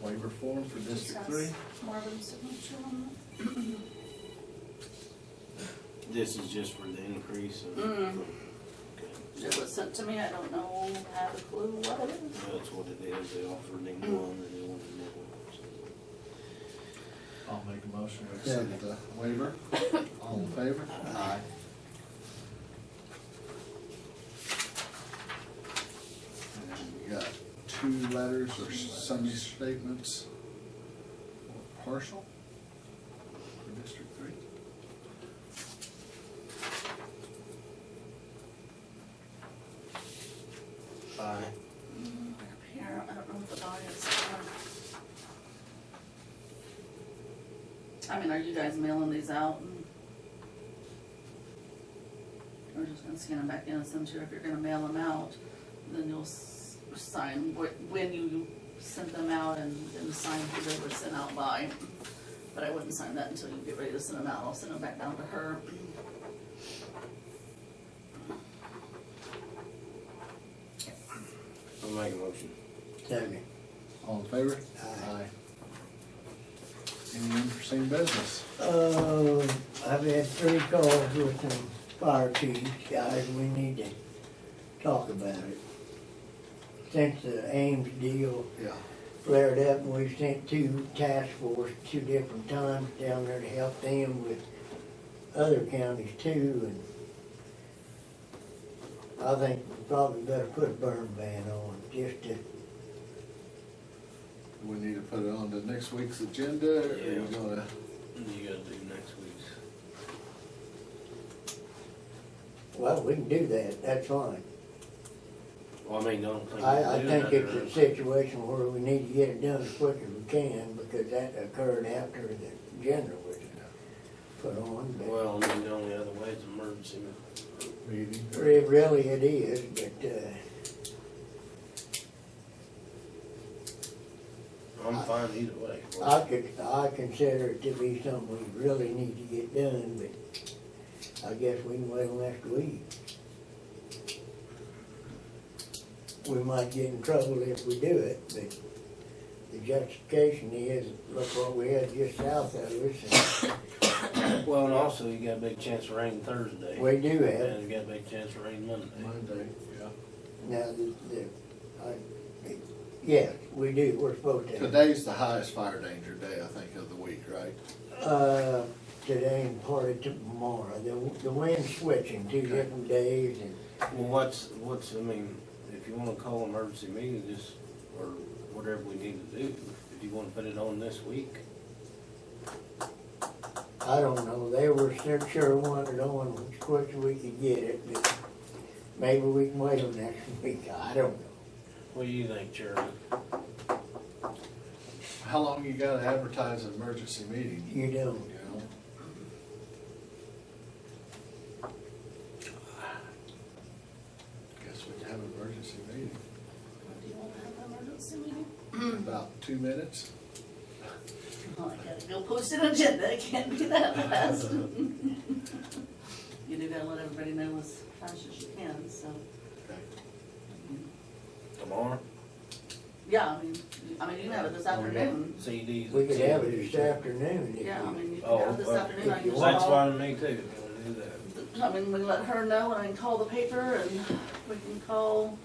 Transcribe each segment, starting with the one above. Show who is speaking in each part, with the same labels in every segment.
Speaker 1: Waiver form for District Three.
Speaker 2: Marvin's signature on it.
Speaker 3: This is just for the increase of.
Speaker 2: Mm.
Speaker 3: Okay.
Speaker 2: It was sent to me, I don't know, have a clue what it is.
Speaker 3: That's what it is, they offered him one and they wanted another one, so.
Speaker 1: I'll make a motion to accept the waiver. All in favor? Aye. And we got two letters or some statements. Partial for District Three.
Speaker 3: Aye.
Speaker 2: Mm, up Here, I don't know what the audience. I mean, are you guys mailing these out? and- We're just gonna scan them back in and send you, if you're gonna mail them out, then you'll s- sign wh- when you sent them out and, and sign who they were sent out by. But I wouldn't sign that until you get ready to send them out, I'll send them back down to her.
Speaker 3: I'll make a motion.
Speaker 4: Second.
Speaker 1: All in favor?
Speaker 4: Aye.
Speaker 1: Any unforeseen business?
Speaker 4: Uh, I've had three calls with the fire chief, guys, we need to talk about it. Since the Ames deal
Speaker 1: Yeah.
Speaker 4: flared up, and we sent two task force, two different times down there to help them with other counties too, and I think we probably better put a burn ban on, just to,
Speaker 1: Do we need to put it on to next week's agenda, or are we
Speaker 3: Yeah.
Speaker 1: gonna?
Speaker 3: You gotta do next week's.
Speaker 4: well, we can do that, that's fine.
Speaker 3: Well, I mean, I don't think.
Speaker 4: I, I
Speaker 3: we do
Speaker 4: think it's
Speaker 3: another-
Speaker 4: a situation where we need to get it done as quick as we can, because that occurred after the general was put on, but
Speaker 3: Well, I mean, the only other way is emergency.
Speaker 1: Meeting.
Speaker 4: it really it is, but, uh,
Speaker 3: I'm fine either way.
Speaker 4: I could, I consider it to be something we really need to get done, but I guess we can wait till next week. We might get in trouble if we do it, but the justification is, look what we had just south of us,
Speaker 3: Well, and also you got a big chance of rain Thursday.
Speaker 4: and we do have. it.
Speaker 3: And you got a big chance of rain Monday.
Speaker 1: Monday, yeah.
Speaker 4: Now, the, the, I, yes, we do, we're supposed to.
Speaker 1: Today's the highest fire danger day, I think, of the week, right?
Speaker 4: Uh, today and part of tomorrow, the, the wind's switching two different days and,
Speaker 3: Well, what's, what's, I mean, if you wanna call emergency meeting, just, or whatever we need to do, if you wanna put it on this week,
Speaker 4: I don't know, they were sure, sure wanted on as quick as we could get it, but maybe we can wait till next week, I don't know.
Speaker 3: what do you think, Jerry?
Speaker 1: How long you gotta advertise an emergency meeting,
Speaker 4: You
Speaker 1: you
Speaker 4: don't,
Speaker 1: know? Guess we can have an emergency meeting,
Speaker 2: Do you wanna have an emergency meeting?
Speaker 1: about two minutes.
Speaker 2: Well, I gotta go post an agenda, it can't be that fast. You do gotta let everybody know as fast as you can, so,
Speaker 1: Okay.
Speaker 3: Tomorrow?
Speaker 2: yeah, I mean, you- I mean, you can have it
Speaker 3: Oh,
Speaker 2: this afternoon.
Speaker 3: CDs.
Speaker 4: we could have it this afternoon if
Speaker 2: Yeah, I
Speaker 4: you,
Speaker 2: mean, you can
Speaker 3: Oh,
Speaker 2: have it this
Speaker 3: okay.
Speaker 2: afternoon, I
Speaker 4: If
Speaker 2: can
Speaker 4: you
Speaker 3: That's
Speaker 2: call.
Speaker 4: want.
Speaker 3: fine with me too, if you wanna do that.
Speaker 2: I mean, we let her know, and I can call the paper, and we can call,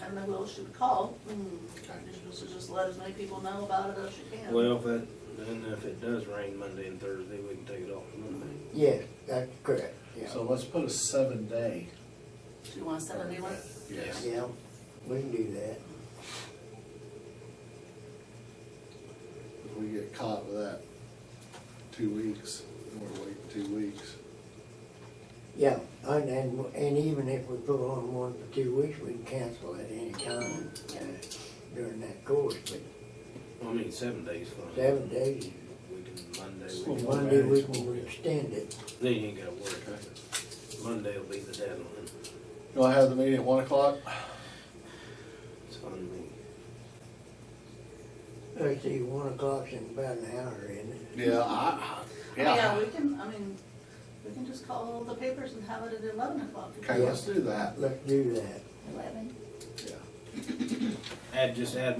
Speaker 2: I don't know who else should call.
Speaker 3: Mm.
Speaker 2: You should just let as many people know about it as you can.
Speaker 3: Well, if it, then if it does rain Monday and Thursday, we can take it off Monday.
Speaker 4: yes, that's correct,
Speaker 1: So
Speaker 4: yeah,
Speaker 1: let's put a seven day.
Speaker 2: Do you wanna set a new one?
Speaker 1: Yes.
Speaker 4: yeah, we can do that.
Speaker 1: If we get caught with that, two weeks, we're waiting two weeks.
Speaker 4: Yeah, and, and, and even if we put on one for two weeks, we can cancel at any time uh, during that course, but
Speaker 3: I mean, seven days. fine.
Speaker 4: seven days,
Speaker 3: We can, Monday,
Speaker 1: School
Speaker 3: we can,
Speaker 4: Monday we can extend it.
Speaker 3: then you ain't gotta work. Monday will be the deadline.
Speaker 1: You wanna have the meeting at one o'clock?
Speaker 3: It's fine with me.
Speaker 4: Let's see, one o'clock's in about an hour, isn't it?
Speaker 1: Yeah, I, I-
Speaker 2: Oh, Yeah,
Speaker 1: yeah.
Speaker 2: we can, I mean, we can just call the papers and have it at eleven o'clock.
Speaker 1: Okay, let's do that.
Speaker 4: Let's do that.
Speaker 2: Eleven.
Speaker 1: Yeah.
Speaker 3: Add, just add